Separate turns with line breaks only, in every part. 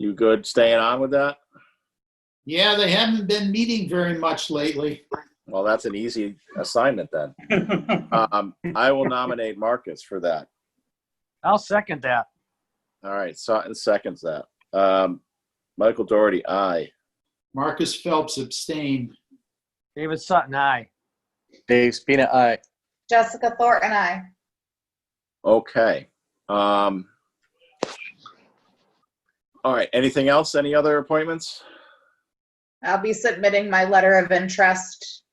You good staying on with that?
Yeah, they haven't been meeting very much lately.
Well, that's an easy assignment then. Um, I will nominate Marcus for that.
I'll second that.
All right, Sutton seconds that. Um, Michael Doherty, aye.
Marcus Phelps abstained.
David Sutton, aye.
Dave Spina, aye.
Jessica Thornton, I.
Okay. Um, all right, anything else? Any other appointments?
I'll be submitting my letter of interest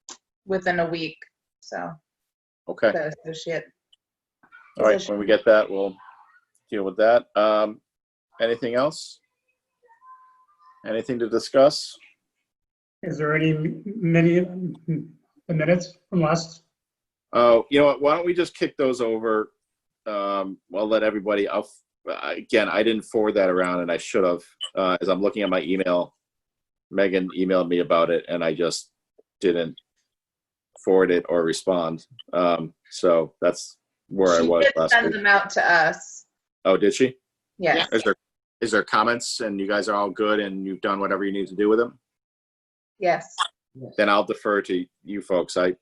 within a week, so
Okay,
the associate.
all right, when we get that, we'll deal with that. Um, anything else? Anything to discuss?
Is there any m- many um, the minutes from last?
Oh, you know what? Why don't we just kick those over? Um, I'll let everybody. I'll again. I didn't forward that around, and I should have. Uh, as I'm looking at my email, Megan emailed me about it, and I just didn't forward it or respond. Um, so that's where I
She
was
did
last
Send
week.
them out to us,
Oh, did she?
yes.
Is there is there comments, and you guys are all good, and you've done whatever you need to do with them?
Yes,
Then I'll defer to you folks. I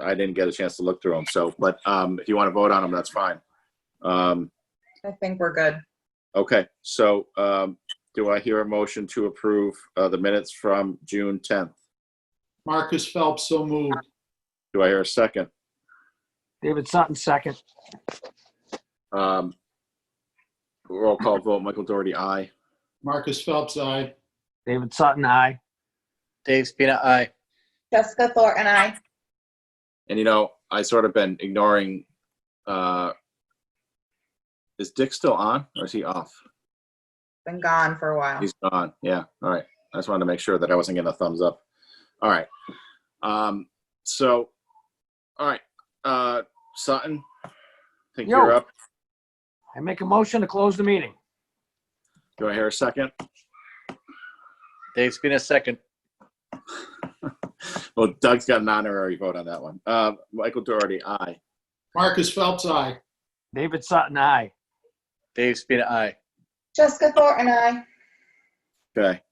I didn't get a chance to look through them. So, but um, if you want to vote on them, that's fine. Um,
I think we're good.
Okay, so um, do I hear a motion to approve uh, the minutes from June 10th?
Marcus Phelps so moved.
Do I hear a second?
David Sutton, second.
Um, Roll call vote, Michael Doherty, aye.
Marcus Phelps, aye.
David Sutton, aye.
Dave Spina, aye.
Jessica Thornton, I.
And you know, I sort of been ignoring, uh, is Dick still on or is he off?
Been gone for a while.
He's gone, yeah, all right. I just wanted to make sure that I wasn't getting a thumbs up. All right. Um, So, all right, uh, Sutton, I think
Yo.
you're up.
I make a motion to close the meeting.
Do I hear a second?
Dave Spina, second.
Well, Doug's got an honorary vote on that one. Uh, Michael Doherty, aye.
Marcus Phelps, aye.
David Sutton, aye.
Dave Spina, aye.
Jessica Thornton, I.
Okay.